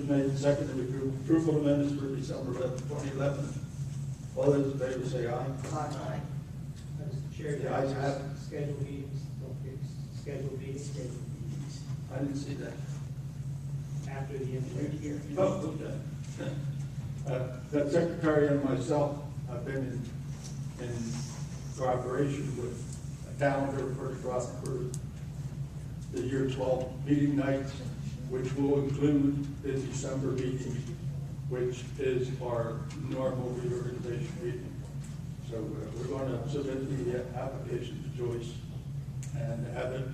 made and seconded to approve approval of minutes for December eleventh, twenty eleven. All those in favor say aye. Aye. Mr. Chair, The ayes have it. scheduled meetings, don't get scheduled meetings I didn't see that. after the end of the year. Oh, okay. Uh, The secretary and myself have been in, in cooperation with a calendar for, for the year twelve meeting nights, which will include the December meeting, which is our normal reorganization meeting. So uh, we're going to submit the application to Joyce and have it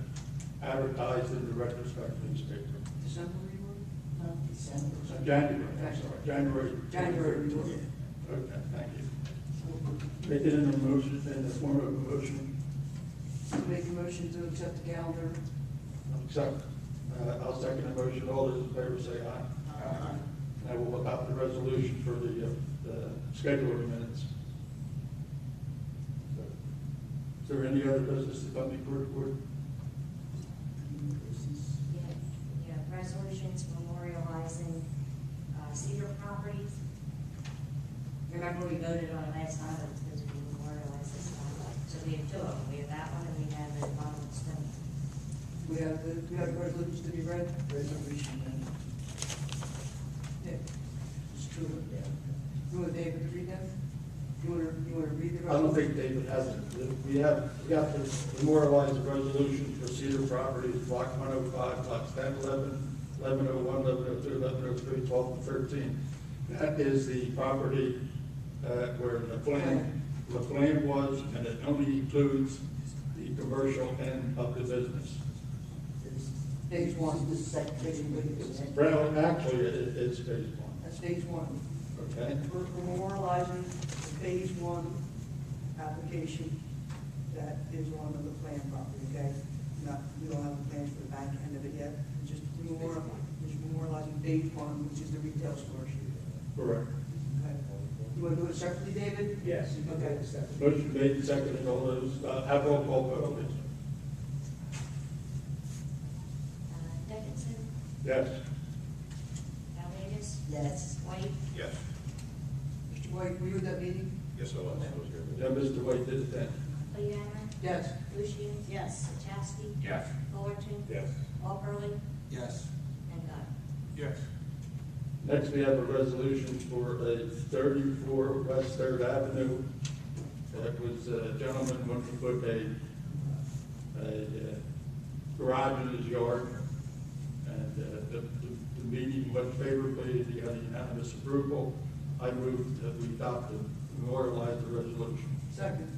advertised in the retrospective newspaper. December, you were? No, December. Uh, January, I'm sorry, January. January, you were. Okay, thank you. Make it in a motion, in the form of a motion, Make a motion to accept the calendar. accept, uh, I'll second the motion, all those in favor say aye. Uh-huh. Aye. I will adopt the resolution for the, uh, the scheduling minutes. So, Is there any other business to come before the board? Yes, yeah, resolutions memorializing uh, Cedar properties. Remember, we voted on it last time, it was supposed to be memorialized this time, so we have two of them, we have that one and we have the Donald Stone. We have the, we have resolutions to be read? Resolution, Yeah. It's true, yeah. You want David to read them? You want to, you want to read the resolution? I don't think David has it. We have, we have to memorialize the resolution for Cedar Properties, block one oh five, blocks 10, 11, 11 oh one, eleven oh two, eleven oh three, twelve and thirteen. That is the property, uh, where the plan, the plan was, and it only includes the commercial end of the business. Stage one, this is second, page one. Well, actually, it, it's phase one, That's stage one. okay? We're memorializing the phase one application that is on the plan property, okay? Not, we don't have a plan for the back end of it yet, It's just memorial- it's memorializing phase one, which is the retail store issue. Correct. Okay. You want to do it separately, David? Yes, you can Okay. have a second. Motion made and seconded, all those, uh, have roll call vote, please. Uh, Dickinson, Yes? Valdez, Yes. White, Yes, Mr. White, were you at that meeting? yes, I was, I was here. Yeah, Mr. White did it then. Leanna, Yes. Lucian. Yes. Chastity, Yes. Fullerton. Yes. Walperly, Yes. and God. Yes. Next, we have a resolution for a thirty-four West Third Avenue. That was uh, a gentleman wanting to put a, a uh, garage in his yard. And uh, the, the the meeting went favorably, he had unanimous approval. I moved that we adopt and memorialize the resolution. Second.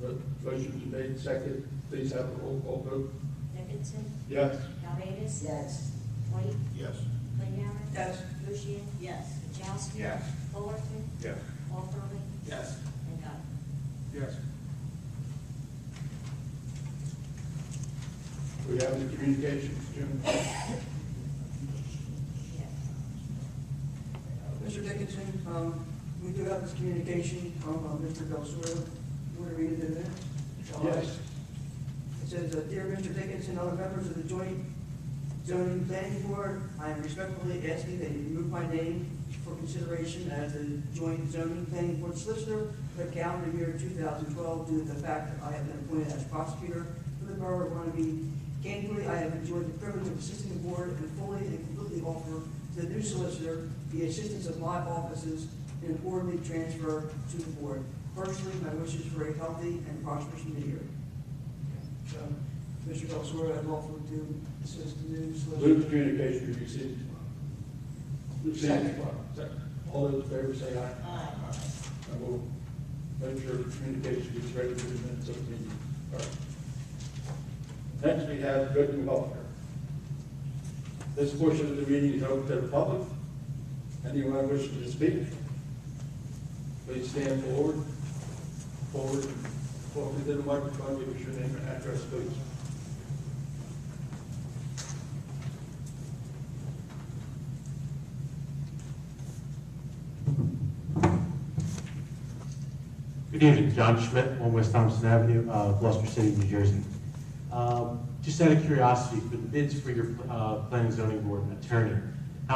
But Motion's made, second, please have a roll call vote. Dickinson, Yes? Valdez, Yes. White, Yes. Leanna. Yes. Lucian. Yes. Chastity. Yes. Fullerton, Yes. Walperly, Yes. and uh, God. Yes. We have any communications, Jim? Yes. Mr. Dickinson, um, we do have this communication from uh, Mr. Belsuer. You want to read it in there? Yes? It says, uh, "Dear Mr. Dickinson, other members of the joint zoning planning board, I am respectfully asking that you remove my name for consideration as the joint zoning planning board solicitor for the calendar year 2012 due to the fact that I have been appointed as prosecutor for the borough of Runaby. Candidly, I have enjoyed the privilege of assisting the board and fully and completely offer to the new solicitor the assistance of my offices in an orderly transfer to the board. Personally, my wishes for a healthy and prosperous new year." So, Mr. Belsoar, I'd love to assist the new solicitor. Move the communication we received. Received. Second. All those in favor say aye. Aye. I will make sure the communication is ready for the minutes of the meeting. All right. Next, we have good and welfare. This portion of the meeting is open to the public. Anyone wishing to speak, please stand forward, forward, forward to the microphone, give us your name and address, please. Good evening, John Schmidt, One West Thompson Avenue, uh, Gloucester City, New Jersey. Um, Just out of curiosity, the bids for your uh, planning zoning board attorney,